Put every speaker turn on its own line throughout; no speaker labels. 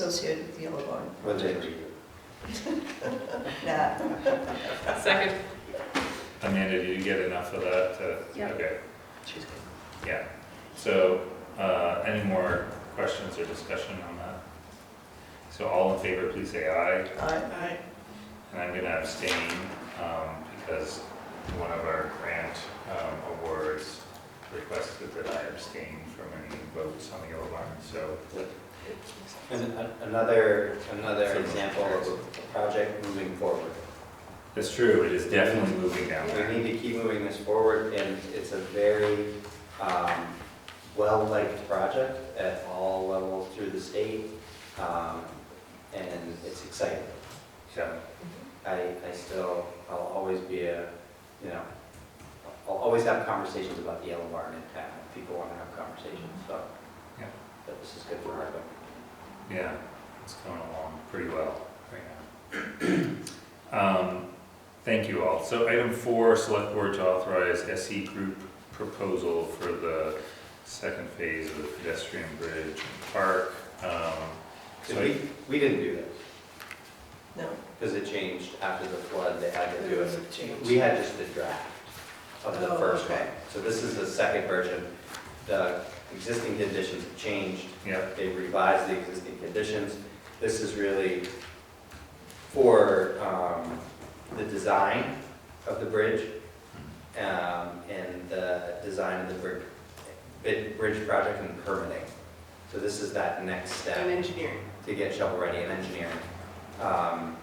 associated with Yellow Barn.
Well, they agree.
Nah,
Second.
Amanda, did you get enough of that to?
Yeah.
Okay, yeah. So, uh, any more questions or discussion on that? So all in favor, please say aye.
I,
Aye.
And I'm gonna abstain, um, because one of our grant, um, awards requested that I abstain from any votes on the yellow barn, so.
And a- Another, another example of a project moving forward.
That's true, it is definitely moving down
We
there.
need to keep moving this forward, and it's a very um, well-liked project at all levels through the state, um, and it's exciting.
Yeah,
I, I still, I'll always be a, you know, I'll always have conversations about the yellow barn in town, if people want to have conversations, so.
Yeah.
But this is good for Hardwick.
yeah, it's going along pretty well right now. Um, Thank you all. So item four, select board to authorize SE group proposal for the second phase of the pedestrian bridge and park. Um,
Because
so I-
we, we didn't do this,
no.
because it changed after the flood, they had to do it.
Change.
We had just the draft of the
Oh,
first one.
okay.
So this is the second version. The existing conditions have changed.
Yeah,
They revised the existing conditions. This is really for um, the design of the bridge um, and the design of the bridge, bid- bridge project and permitting. So this is that next step
And engineering.
to get shovel-ready and engineering. Um,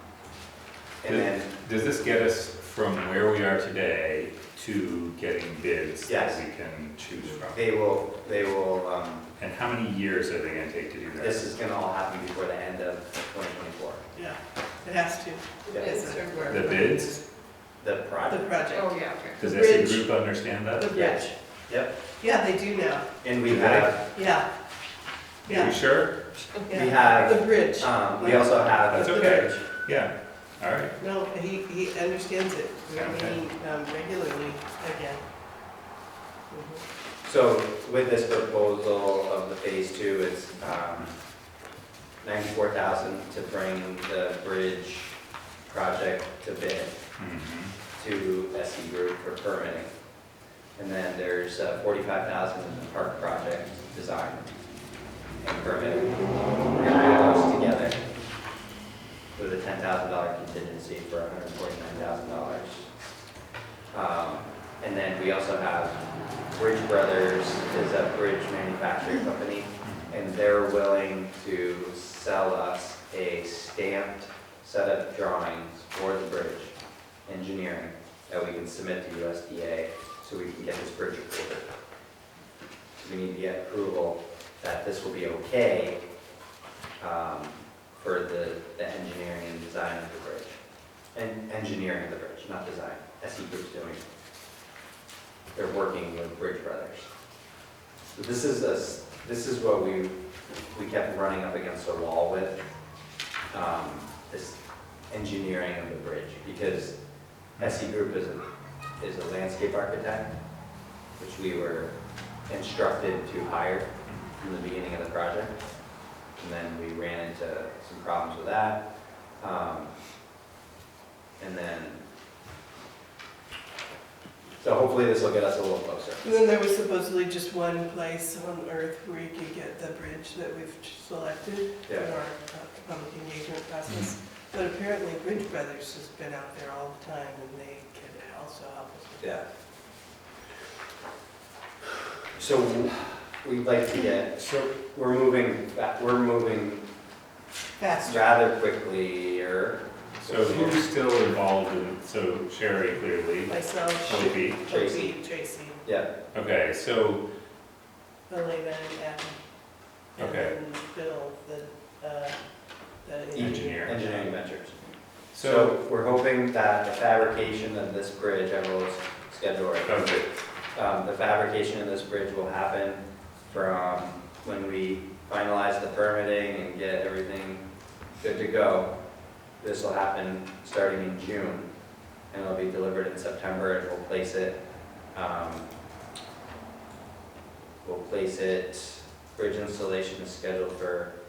And then
Does this get us from where we are today to getting bids that
Yes.
we can choose from?
they will, they will, um,
And how many years are they gonna take to do that?
this is gonna all happen before the end of 2024.
Yeah, it has to,
It's her
The
work.
bids?
The
the
project,
project.
Oh, yeah, okay.
Does
The
SE
bridge.
Group understand that?
The bridge.
yep.
Yeah, they do now,
And we have,
yeah.
Are you
Yeah,
sure?
we
yeah.
have,
The bridge.
um, we also have
That's
the
okay.
bridge.
Yeah, all right.
No, he, he understands it. We're
Okay.
meeting um, regularly again. Mhm.
So with this proposal of the phase two, it's um, 94,000 to bring the bridge project to bid.
Mhm.
to SE E Group for permitting. And then there's uh, 45,000 in the park project design and permitting. We're gonna put those together with a $10,000 contingency for $149,000. Um, And then we also have Bridge Brothers is a bridge manufacturing company, and they're willing to sell us a stamped set of drawings for the bridge engineering that we can submit to USDA so we can get this bridge approved. We need to get approval that this will be okay um, for the, the engineering and design of the bridge. And engineering of the bridge, not design, SE Group's doing. it. They're working with Bridge Brothers. So This is a, s- this is what we, we kept running up against a wall with, um, this engineering of the bridge, because SE Group is a, is a landscape architect, which we were instructed to hire from the beginning of the project. And then we ran into some problems with that. Um, And then, so hopefully this will get us a little closer.
And then there was supposedly just one place on earth where you could get the bridge that we've selected for
Yeah.
our uh, public engagement process. But apparently Bridge Brothers has been out there all the time and they can also help us with
Yeah. So we'd like to get,
So,
we're moving, fa- we're moving
faster.
rather quickly or
so who's still involved in, so Sherry clearly,
Myself,
would be,
Tracy.
Tracy, Tracy,
Yeah,
okay, so,
Elena and Adam.
Okay.
And then Bill, the, uh, the
Engineer.
engineer.
engineering ventures.
so,
So we're hoping that the fabrication of this bridge, I will schedule it.
okay,
Um, The fabrication of this bridge will happen from when we finalize the permitting and get everything good to go. This will happen starting in June, and it'll be delivered in September, and we'll place it, um, we'll place it, bridge installation is scheduled for